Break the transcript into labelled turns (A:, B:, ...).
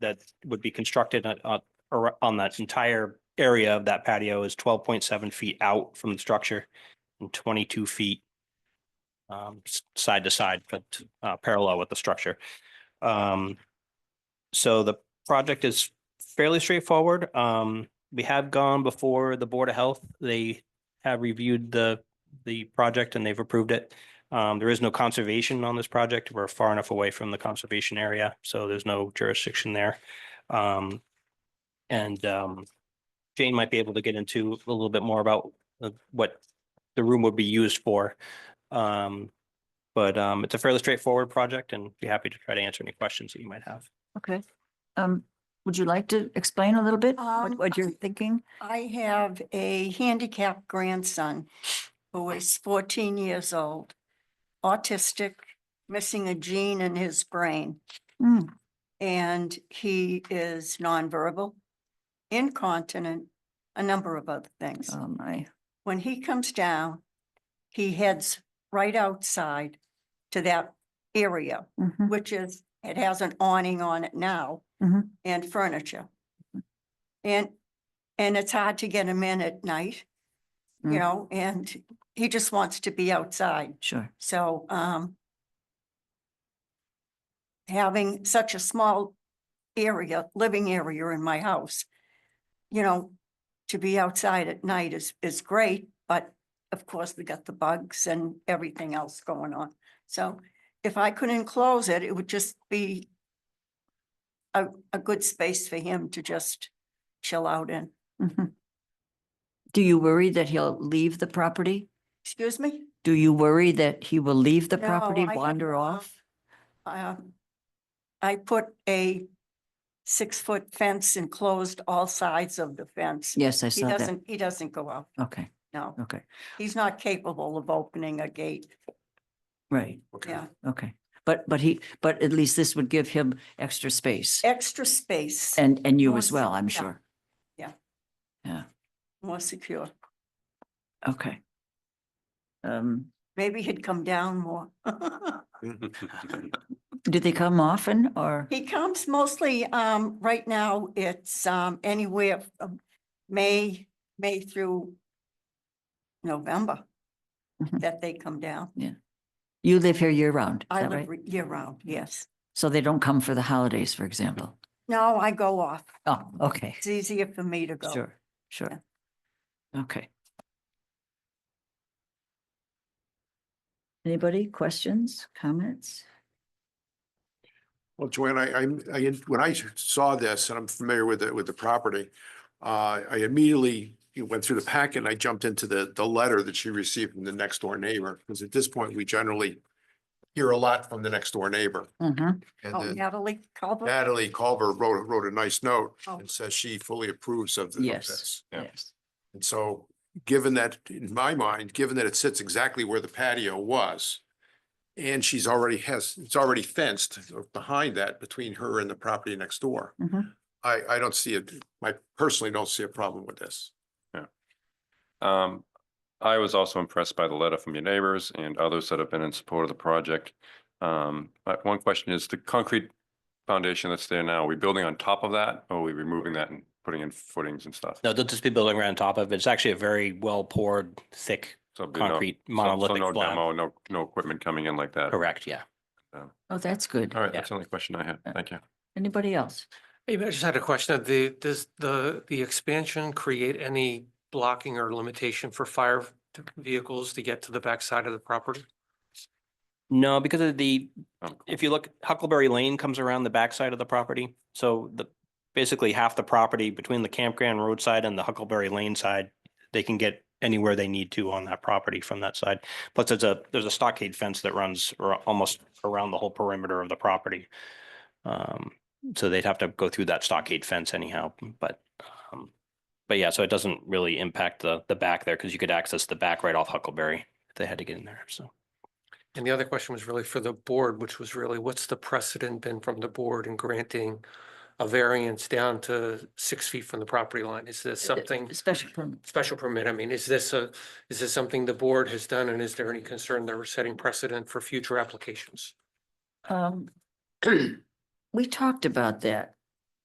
A: that would be constructed on, on, ar- on that entire area of that patio is twelve point seven feet out from the structure and twenty-two feet um, s- side to side, but uh, parallel with the structure. Um, so the project is fairly straightforward. Um, we have gone before the Board of Health. They have reviewed the, the project and they've approved it. Um, there is no conservation on this project. We're far enough away from the conservation area, so there's no jurisdiction there. Um, and, um, Jane might be able to get into a little bit more about uh, what the room would be used for. Um, but, um, it's a fairly straightforward project and be happy to try to answer any questions that you might have.
B: Okay. Um, would you like to explain a little bit what,
C: Um,
B: what you're
C: I-
B: thinking?
C: I have a handicapped grandson who is fourteen years old, autistic, missing a gene in his brain,
B: Hmm,
C: and he is nonverbal, incontinent, a number of other things.
B: oh my,
C: When he comes down, he heads right outside to that area,
B: mhm,
C: which is, it has an awning on it now
B: Mhm.
C: and furniture. And, and it's hard to get him in at night,
B: Mm.
C: you know, and he just wants to be outside.
B: sure.
C: So, um, having such a small area, living area in my house, you know, to be outside at night is, is great, but of course we got the bugs and everything else going on. So if I could enclose it, it would just be a, a good space for him to just chill out in.
B: Mhm. Do you worry that he'll leave the property?
C: Excuse me?
B: Do you worry that he will leave the
C: No,
B: property,
C: I have
B: wander
C: not.
B: off?
C: um, I put a six-foot fence and closed all sides of the fence.
B: Yes, I
C: He
B: saw that.
C: doesn't, he doesn't go out,
B: Okay,
C: no.
B: okay,
C: He's not capable of opening a gate,
B: right,
C: yeah.
B: okay. But, but he, but at least this would give him extra space
C: Extra space,
B: and, and you
C: more
B: as well, I'm
C: yeah,
B: sure.
C: more secure.
B: Okay. Um,
C: Maybe he'd come down more.
B: do they come often or?
C: He comes mostly, um, right now, it's, um, anywhere from May, May through November
B: Mhm.
C: that they come down.
B: You live here year round, is
C: I
B: that
C: live
B: right?
C: re- year-round, yes.
B: So they don't come for the holidays, for example?
C: No, I go off.
B: Oh, okay,
C: It's easier for me to go.
B: sure, sure. Okay. Anybody, questions, comments?
D: Well, Joanne, I, I'm- I, when I saw this, and I'm familiar with it, with the property, uh, I immediately you know, went through the packet and I jumped into the, the letter that she received from the next door neighbor, because at this point, we generally hear a lot from the next door neighbor.
B: Mhm.
D: And
C: Oh,
D: then
C: Natalie Culver,
D: Natalie Culver wrote, wrote a nice note
C: Oh.
D: and says she fully approves of the- of
B: Yes.
D: this.
B: Yes.
D: And so, given that, in my mind, given that it sits exactly where the patio was, and she's already has, it's already fenced behind that between her and the property next door.
B: Mhm.
D: I, I don't see it, I personally don't see a problem with this.
E: Um, I was also impressed by the letter from your neighbors and others that have been in support of the project. Um, but one question is the concrete foundation that's there now, are we building on top of that? Or are we removing that and putting in footings and stuff?
A: No, they'll just be building right on top of it. It's actually a very well poured, thick
E: So there'll be no-
A: concrete
E: so- so
A: monolithic
E: No
A: slab.
E: demo, no, no equipment coming in like that.
A: Correct, yeah.
B: Oh, that's good.
E: All right,
A: Yeah.
E: that's the only question I had. Thank you.
B: Anybody else?
F: Hey, I just had a question. The, does the, the expansion create any blocking or limitation for fire t- vehicles to get to the backside of the property?
A: No, because of the,
E: Um, cool.
A: if you look, Huckleberry Lane comes around the backside of the property. So the, basically half the property between the campground roadside and the Huckleberry Lane side, they can get anywhere they need to on that property from that side. Plus, there's a, there's a stockade fence that runs ar- almost around the whole perimeter of the property. Um, so they'd have to go through that stockade fence anyhow, but, um, but yeah, so it doesn't really impact the, the back there because you could access the back right off Huckleberry if they had to get in there, so.
F: And the other question was really for the board, which was really, what's the precedent been from the board in granting a variance down to six feet from the property line? Is this something,
B: Special permit.
F: special permit? I mean, is this a, is this something the board has done? And is there any concern that we're setting precedent for future applications?
B: Um, we talked about that.